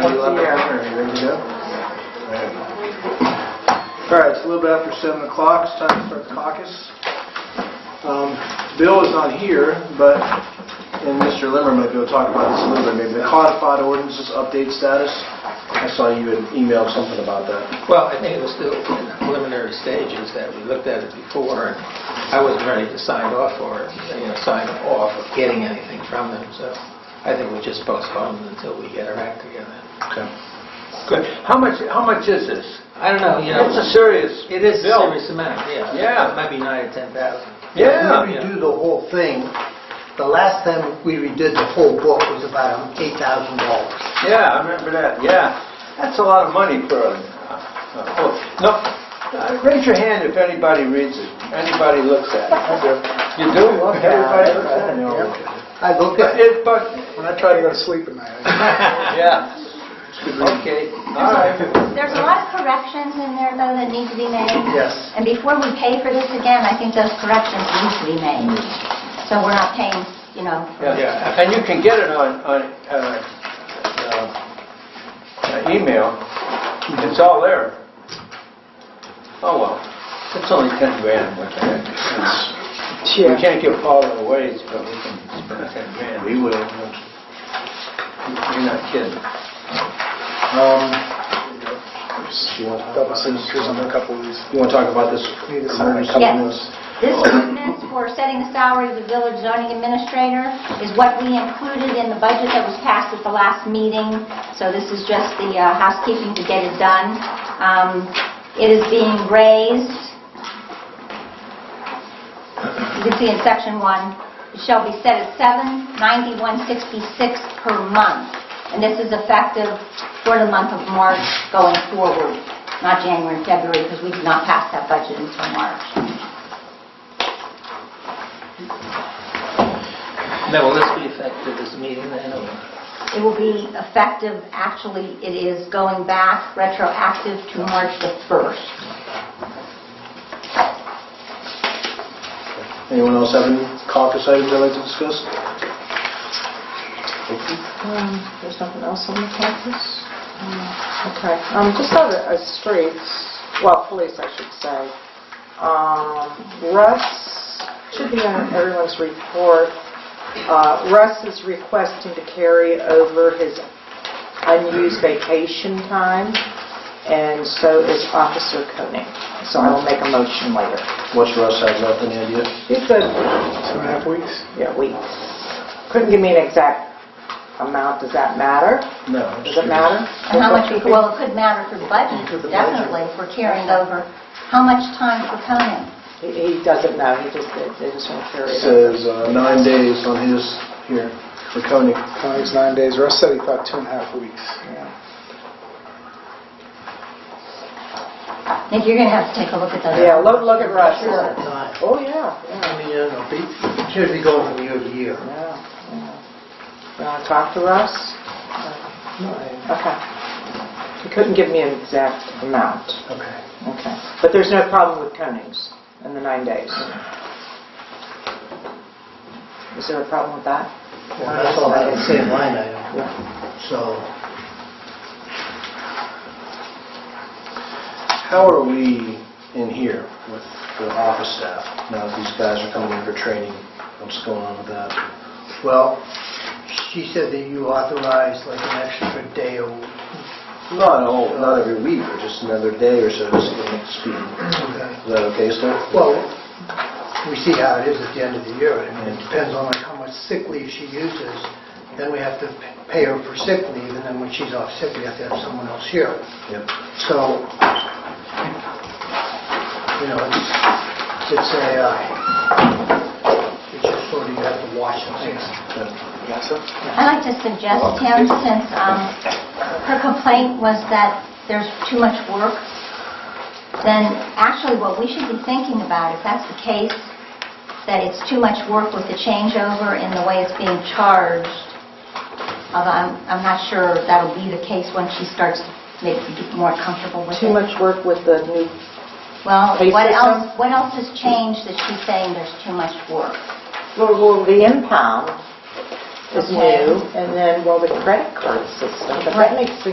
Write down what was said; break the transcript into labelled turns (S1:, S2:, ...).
S1: little bit after, ready to go? All right, it's a little bit after seven o'clock, it's time to start the caucus. Um, Bill is not here, but, and Mr. Limmer might be able to talk about this a little bit, maybe the codified ordinances update status. I saw you had emailed something about that.
S2: Well, I think it was still in the preliminary stages that we looked at it before, and I wasn't ready to sign off or, you know, sign off of getting anything from them, so I think we just postpone until we get our act together.
S1: Okay.
S3: Good. How much, how much is this?
S2: I don't know, you know,
S3: It's a serious
S2: it is a
S3: bill.
S2: serious amount, yeah.
S3: Yeah.
S2: It might be nine or 10,000.
S3: Yeah.
S4: We redo the whole thing. The last time we redid the whole book was about $8,000.
S3: Yeah, I remember that, yeah. That's a lot of money for a, a book. No, uh, raise your hand if anybody reads it, anybody looks at it. You do? Everybody looks at it?
S4: I look
S3: But
S4: at it,
S3: it, but,
S1: When I try to go to sleep at night.
S3: yeah. Okay, all right.
S5: There's a lot of corrections in there, though, that need to be made.
S1: Yes.
S5: And before we pay for this again, I think those corrections need to be made. So we're not paying, you know,
S3: Yeah, and you can get it on, on, uh, uh, uh, email, it's all there. Oh, well, it's only 10 grand, what the heck. We can't give all of it away, but we can spend 10 grand. We will. You're not kidding.
S1: Um, You want to double signatures on a couple of these? You want to talk about this? Couple
S5: Yes.
S1: of those.
S5: this ordinance for setting the salary of the village zoning administrator is what we included in the budget that was passed at the last meeting. So this is just the uh, housekeeping to get it done. Um, It is being raised. You can see in section one, it shall be set at 79166 per month. And this is effective for the month of March going forward, not January and February, because we did not pass that budget until March.
S2: Now, will this be effective this meeting then? or-
S5: It will be effective, actually, it is going back retroactive to March the 1st.
S1: Anyone else have any caucus items they'd like to discuss?
S6: Um, There's nothing else on the campus? Okay, um, just on the uh, streets, well, police, I should say. Um, Russ, should be on everyone's report. Uh, Russ is requesting to carry over his unused vacation time, and so is Officer Koenig. So I will make a motion later.
S1: What's Russ have left, any idea?
S6: He said
S1: Two and a half weeks.
S6: yeah, weeks. Couldn't give me an exact amount, does that matter?
S1: No.
S6: Does it matter?
S5: And how much, well, it could matter for the budget, definitely, if we're carrying over. How much time for Conan?
S6: He he doesn't know, he just, they they just want to carry it. over.
S1: Says uh, nine days on his here for Koenig.
S7: Connie's nine days, Russ said he thought two and a half weeks.
S6: Yeah.
S5: Nick, you're going to have to take a look at those.
S6: Yeah, look, look at Russ.
S4: Not-
S6: Oh, yeah,
S4: I
S6: yeah,
S4: mean, you know, it should be going from year to year.
S6: yeah, yeah. You want to talk to Russ? Okay. He couldn't give me an exact amount,
S4: Okay.
S6: okay. But there's no problem with Konings in the nine days. Is there a problem with that?
S4: Well, That's all I can say, line item,
S6: Yeah.
S4: so.
S1: How are we in here with the office staff now that these guys are coming in for training? What's going on with that?
S4: Well, she said that you authorized like an extra day a week.
S1: Not all, not every week, but just another day or so, just to get up to speed. Is that okay, sir?
S4: Well, we see how it is at the end of the year. I mean, it depends on like how much sick leave she uses. Then we have to pay her for sick leave, and then when she's off sick, we have to have someone else here.
S1: Yep.
S4: So, you know, it's, it's a, uh, it's just sort of, you have to watch and see.
S5: I'd like to suggest, Tim, since um, her complaint was that there's too much work, then actually what we should be thinking about, if that's the case, that it's too much work with the changeover in the way it's being charged, although I'm I'm not sure that'll be the case when she starts maybe get more comfortable with it.
S6: Too much work with the new,
S5: Well,
S6: pay
S5: what
S6: system?
S5: else, what else has changed that she's saying there's too much work?
S6: well, well, the impound is
S5: Okay.
S6: new, and then, well, the credit card system, but that
S5: Right.
S6: makes me